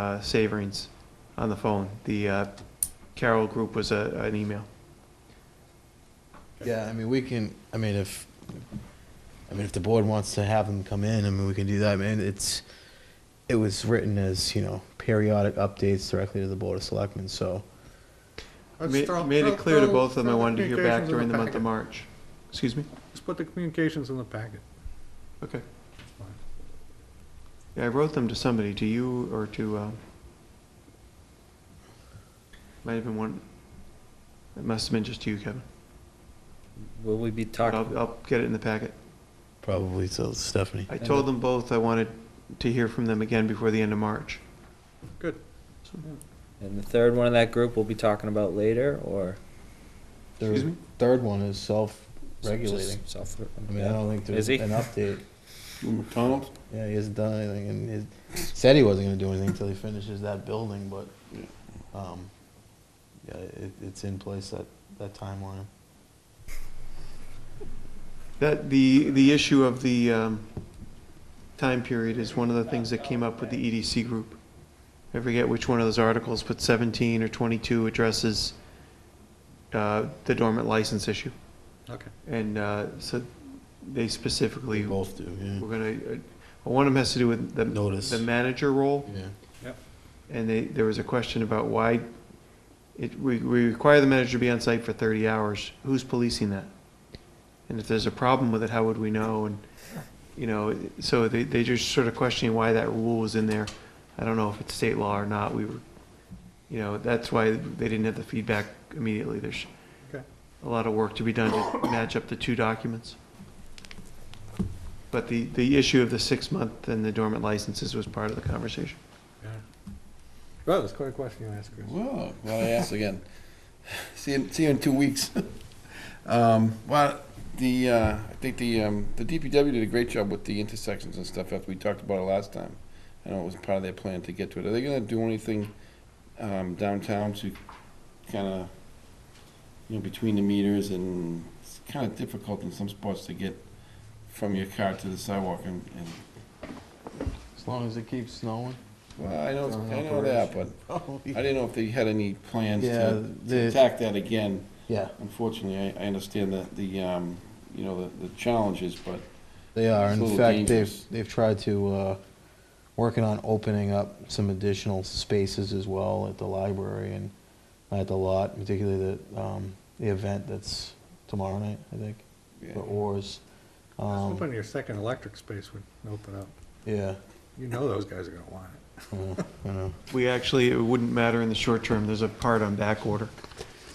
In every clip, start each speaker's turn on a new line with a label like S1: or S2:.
S1: uh, Saverings on the phone. The uh, Carroll Group was a- an email.
S2: Yeah, I mean, we can, I mean, if, I mean, if the board wants to have them come in, I mean, we can do that, I mean, it's, it was written as, you know, periodic updates directly to the Board of Selectmen, so.
S1: Ma-
S3: Let's throw-
S1: Made
S3: throw-
S1: it clear to
S3: throw-
S1: both of them I
S3: throw the
S1: wanted to hear back
S3: communications in
S1: during the month
S3: packet.
S1: of March. Excuse me?
S3: Let's put the communications in the packet.
S1: Okay. Yeah, I wrote them to somebody, to you or to, um, might have been one, it must have been just to you, Kevin.
S4: Will we be
S1: I'll,
S4: talking,
S1: I'll get it in the packet.
S2: Probably to Stephanie.
S1: I
S4: And
S1: told
S4: the-
S1: them both I wanted to hear from them again before the end of March.
S3: Good.
S1: So-
S4: and the third one of that group we'll be talking about later, or?
S2: Their
S1: Excuse me?
S2: Third one is self-regulating.
S4: Just self-
S2: I mean, I don't think
S4: Is
S2: there's
S4: he?
S2: an update.
S5: McDonald's?
S2: Yeah, he hasn't done anything, and he said he wasn't gonna do anything until he finishes that building, but, um, yeah, it, it's in place, that, that timeline.
S1: That, the, the issue of the um, time period is one of the things that came up with the EDC group. I forget which one of those articles, but 17 or 22 addresses uh, the dormant license issue.
S3: Okay.
S1: And uh, so they specifically,
S2: We
S1: were
S2: both do, yeah.
S1: going to, one of them has to do with the
S2: Notice.
S1: the manager role.
S2: Yeah.
S1: And they, there was a question about why it, we, we require the manager to be on site for thirty hours, who's policing that? And if there's a problem with it, how would we know? And, you know, so they, they just sort of questioning why that rule was in there. I don't know if it's state law or not, we were, you know, that's why they didn't have the feedback immediately. There's
S3: Okay.
S1: a lot of work to be done to match up the two documents. But the, the issue of the six-month and the dormant licenses was part of the conversation.
S3: Yeah. Well, that's quite a question you asked, Chris.
S5: Well, well, I asked again. See you, see you in two weeks. Um, well, the, uh, I think the, um, the DPW did a great job with the intersections and stuff after we talked about it last time. I know it was part of their plan to get to it. Are they gonna do anything, um, downtown to kinda, you know, between the meters and it's kinda difficult in some spots to get from your car to the sidewalk and, and,
S2: As long as it keeps snowing.
S5: well, I know, I know that, but I didn't know if they had any plans
S2: Yeah,
S5: to to
S2: the-
S5: attack that again.
S2: Yeah,
S5: Unfortunately, I, I understand that the, um, you know, the, the challenges, but
S2: they are.
S5: It's a
S2: In
S5: little
S2: fact, they've,
S5: dangerous.
S2: they've tried to, uh, working on opening up some additional spaces as well at the library and at the lot, particularly the, um, the event that's tomorrow night, I think,
S5: yeah,
S2: the oars.
S3: I was
S2: Um,
S3: hoping your second electric space would open up.
S2: Yeah,
S3: You know those guys are gonna want it.
S2: I know, I know.
S1: We actually, it wouldn't matter in the short term, there's a part on back order.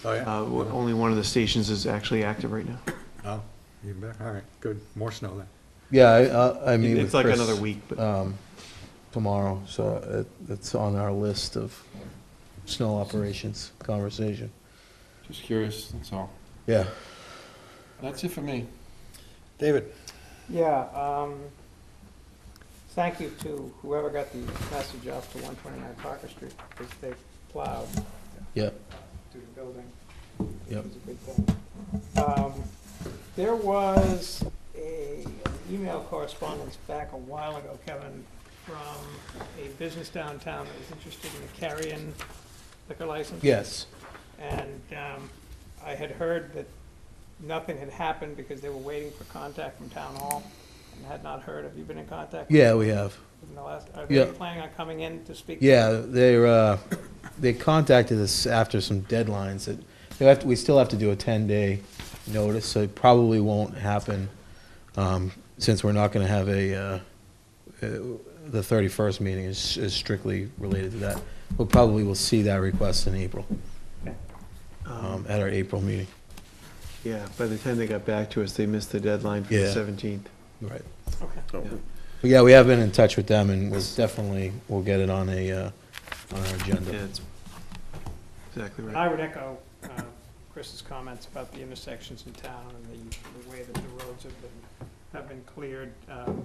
S3: Oh,
S1: Uh,
S3: yeah?
S1: w- Only one of the stations is actually active right now.
S3: Oh, even better. All right, good. More snow then.
S2: Yeah, I, I- I meet
S1: It's
S2: with
S1: like
S2: Chris,
S1: another week, but
S2: Um, tomorrow, so it, it's on our list of snow operations conversation.
S5: just curious, that's all.
S2: Yeah.
S5: That's it for me.
S3: David,
S6: Yeah, um, thank you to whoever got the message off to one twenty-nine Parker Street, because they plowed
S2: Yep.
S6: through the building.
S2: Yep.
S6: It was a good thing. Um, There was a email correspondence back a while ago, Kevin, from a business downtown that was interested in the carrying liquor license.
S2: Yes.
S6: And um, I had heard that nothing had happened because they were waiting for contact from town hall and had not heard. Have you been in contact?
S2: Yeah, we have.
S6: In the last, are they
S2: Yeah.
S6: planning on coming in to speak?
S2: Yeah, they're, uh, they contacted us after some deadlines that, they have, to- we still have to do a ten-day notice, so it probably won't happen, um, since we're not gonna have a, uh, uh, the thirty-first meeting is, is strictly related to that. We'll probably will see that request in April,
S1: um,
S2: um, at our April meeting.
S1: yeah, by the time they got back to us, they missed the deadline for the
S2: Yeah.
S1: 17th.
S2: Right.
S6: Okay.
S2: But yeah, we have been in touch with them, and we'll definitely, we'll get it on a, uh, on our
S1: Yeah,
S2: agenda.
S1: it's exactly right.
S6: I would echo uh, Chris's comments about the intersections in town and the, the way that the roads have been, have been cleared. Um,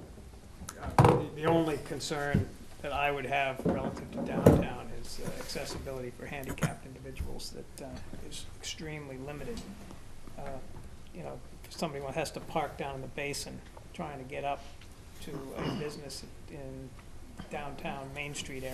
S6: uh, the- The only concern that I would have relative to downtown is uh, accessibility for handicapped individuals that uh, is extremely limited. Uh, You know, if somebody has to park down in the basin trying to get up to a business in downtown Main Street area.